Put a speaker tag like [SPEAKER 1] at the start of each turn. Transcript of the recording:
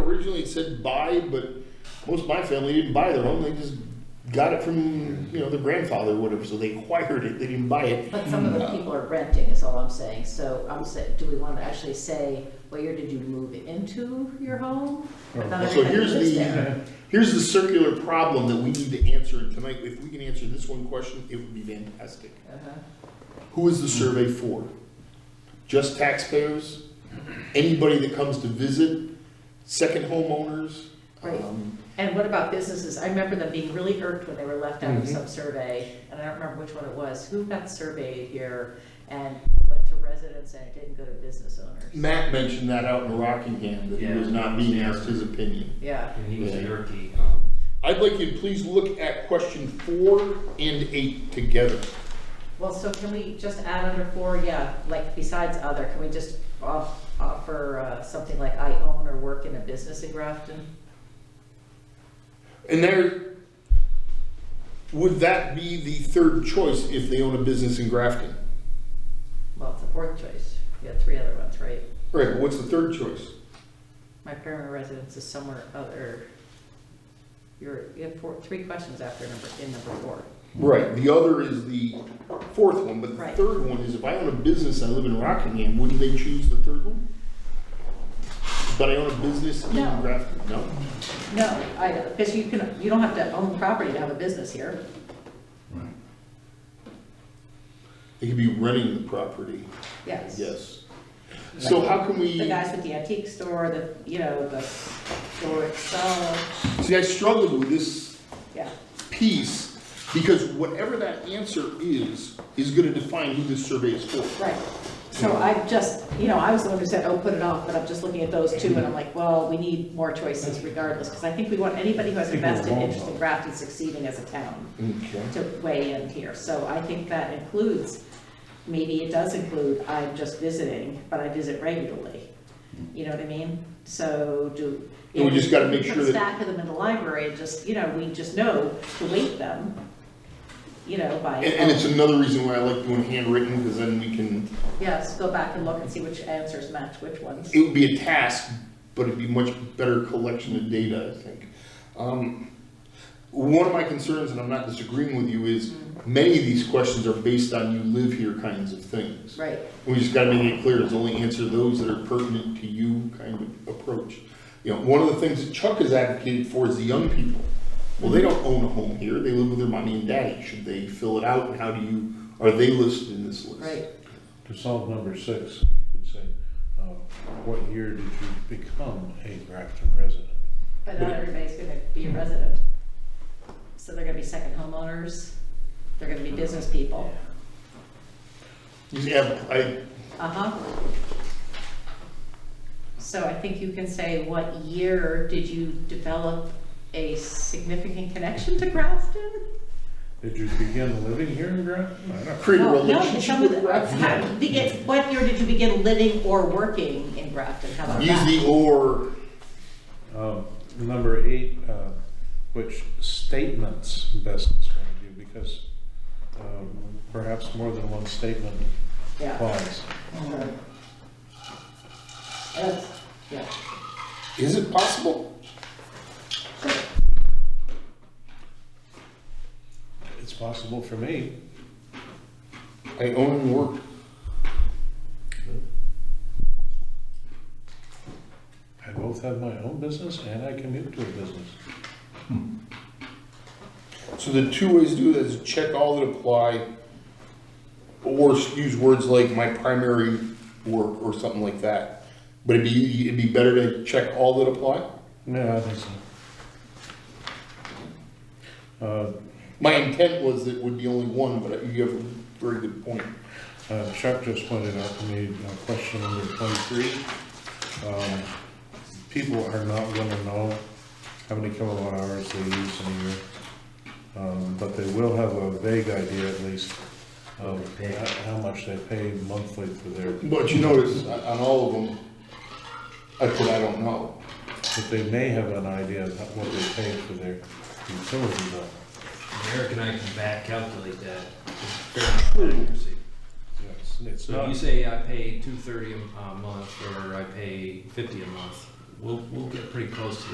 [SPEAKER 1] originally it said buy, but most of my family didn't buy their home, they just got it from, you know, their grandfather or whatever, so they acquired it, they didn't buy it.
[SPEAKER 2] But some of
[SPEAKER 1] Mm.
[SPEAKER 2] the people are renting is all I'm saying, so I'm saying, do we want to actually say, what year did you move into your home? But not
[SPEAKER 1] Oh. So
[SPEAKER 2] everybody
[SPEAKER 1] here's
[SPEAKER 2] lives there.
[SPEAKER 1] the, here's the circular problem that we need to answer, and tonight, if we can answer this one question, it would be fantastic.
[SPEAKER 2] Uh-huh.
[SPEAKER 1] Who is the survey for? Just taxpayers? Anybody that comes to visit? Second homeowners?
[SPEAKER 2] Right.
[SPEAKER 1] Um,
[SPEAKER 2] And what about businesses? I remember them being really irked when they were left out of
[SPEAKER 1] Mhm.
[SPEAKER 2] some survey, and I don't remember which one it was, who got surveyed here and went to residents and it didn't go to business owners?
[SPEAKER 1] Matt mentioned that out in Rockingham, that he was
[SPEAKER 3] Yeah.
[SPEAKER 1] not being asked his opinion.
[SPEAKER 2] Yeah,
[SPEAKER 3] And he was
[SPEAKER 1] Yeah.
[SPEAKER 3] jerky. Um,
[SPEAKER 1] I'd like you to please look at question four and eight together.
[SPEAKER 2] well, so can we just add under four, yeah, like besides other, can we just off- offer uh, something like I own or work in a business in Grafton?
[SPEAKER 1] And there, would that be the third choice if they own a business in Grafton?
[SPEAKER 2] Well, it's a fourth choice. You got three other ones, right?
[SPEAKER 1] Right, but what's the third choice?
[SPEAKER 2] My permanent residence is somewhere other. You're, you have four, three questions after number, in number four.
[SPEAKER 1] Right, the other is the fourth one, but the
[SPEAKER 2] Right.
[SPEAKER 1] third one is if I own a business and I live in Rockingham, wouldn't they choose the third one? But I own a business in
[SPEAKER 2] No.
[SPEAKER 1] Grafton, no?
[SPEAKER 2] No, I, because you can, you don't have to own property to have a business here.
[SPEAKER 1] They could be renting the property,
[SPEAKER 2] Yes.
[SPEAKER 1] yes. So how can we?
[SPEAKER 2] The guys with the antique store, the, you know, the store itself,
[SPEAKER 1] See, I struggled with this
[SPEAKER 2] yeah.
[SPEAKER 1] piece because whatever that answer is, is gonna define who this survey is for.
[SPEAKER 2] Right. So I just, you know, I was the one who said, oh, put it off, but I'm just looking at those two, and I'm like, well, we need more choices regardless, because I think we want anybody who has a vested interest in Grafton succeeding as a town
[SPEAKER 1] Okay.
[SPEAKER 2] to weigh in here. So I think that includes, maybe it does include, I'm just visiting, but I visit regularly. You know what I mean? So do.
[SPEAKER 1] And we just gotta make sure
[SPEAKER 2] Put
[SPEAKER 1] that-
[SPEAKER 2] a stack of them in the library and just, you know, we just know to weight them, you know, by.
[SPEAKER 1] And, and it's another reason why I like doing handwritten, because then we can,
[SPEAKER 2] Yes, go back and look and see which answers match which ones.
[SPEAKER 1] it would be a task, but it'd be much better collection of data, I think. Um, One of my concerns, and I'm not disagreeing with you, is many of these questions are based on you live here kinds of things.
[SPEAKER 2] Right,
[SPEAKER 1] We just gotta make it clear, it's only answer those that are pertinent to you kind of approach. You know, one of the things that Chuck has advocated for is the young people. Well, they don't own a home here, they live with their mommy and daddy, should they fill it out, and how do you, are they listed in this list?
[SPEAKER 2] right.
[SPEAKER 4] To solve number six, you could say, uh, what year did you become a Grafton resident?
[SPEAKER 2] But not everybody's gonna be a resident. So they're gonna be second homeowners, they're gonna be business people.
[SPEAKER 1] Yeah, I,
[SPEAKER 2] Uh-huh. So I think you can say, what year did you develop a significant connection to Grafton?
[SPEAKER 4] Did you begin living here in Grafton? I don't know.
[SPEAKER 1] create a
[SPEAKER 2] No, no,
[SPEAKER 1] relationship
[SPEAKER 2] some of
[SPEAKER 1] with
[SPEAKER 2] the- uh, how-
[SPEAKER 1] Grafton.
[SPEAKER 2] begin- What year did you begin living or working in Grafton? How about
[SPEAKER 1] Use
[SPEAKER 2] that?
[SPEAKER 1] the or,
[SPEAKER 4] Um, Number eight, uh, which statements best describe you, because um, perhaps more than one statement
[SPEAKER 2] Yeah.
[SPEAKER 4] applies.
[SPEAKER 2] sure. That's- Yeah.
[SPEAKER 1] is it possible?
[SPEAKER 4] It's possible for me.
[SPEAKER 1] I own and work.
[SPEAKER 4] I both have my own business and I commute to a business.
[SPEAKER 1] So the two ways to do that is check all that apply, or use words like my primary work or something like that. But it'd be, it'd be better to check all that apply.
[SPEAKER 4] No, I think so. Uh,
[SPEAKER 1] My intent was that it would be only one, but you have a very good point.
[SPEAKER 4] Uh, Chuck just pointed out to me, uh, question number twenty-three. um, People are not gonna know how many kilowatt hours they use in a year. Um, But they will have a vague idea at least of ho- how much they pay monthly for their,
[SPEAKER 1] But you notice, on on all of them, I put I don't know.
[SPEAKER 4] but they may have an idea of what they pay for their utility bill.
[SPEAKER 3] Eric and I can back calculate that. with fair amount of accuracy.
[SPEAKER 4] Yes, It's
[SPEAKER 3] So if
[SPEAKER 4] not,
[SPEAKER 3] you say I pay two thirty a m- a month, or I pay fifty a month, we'll, we'll get pretty close to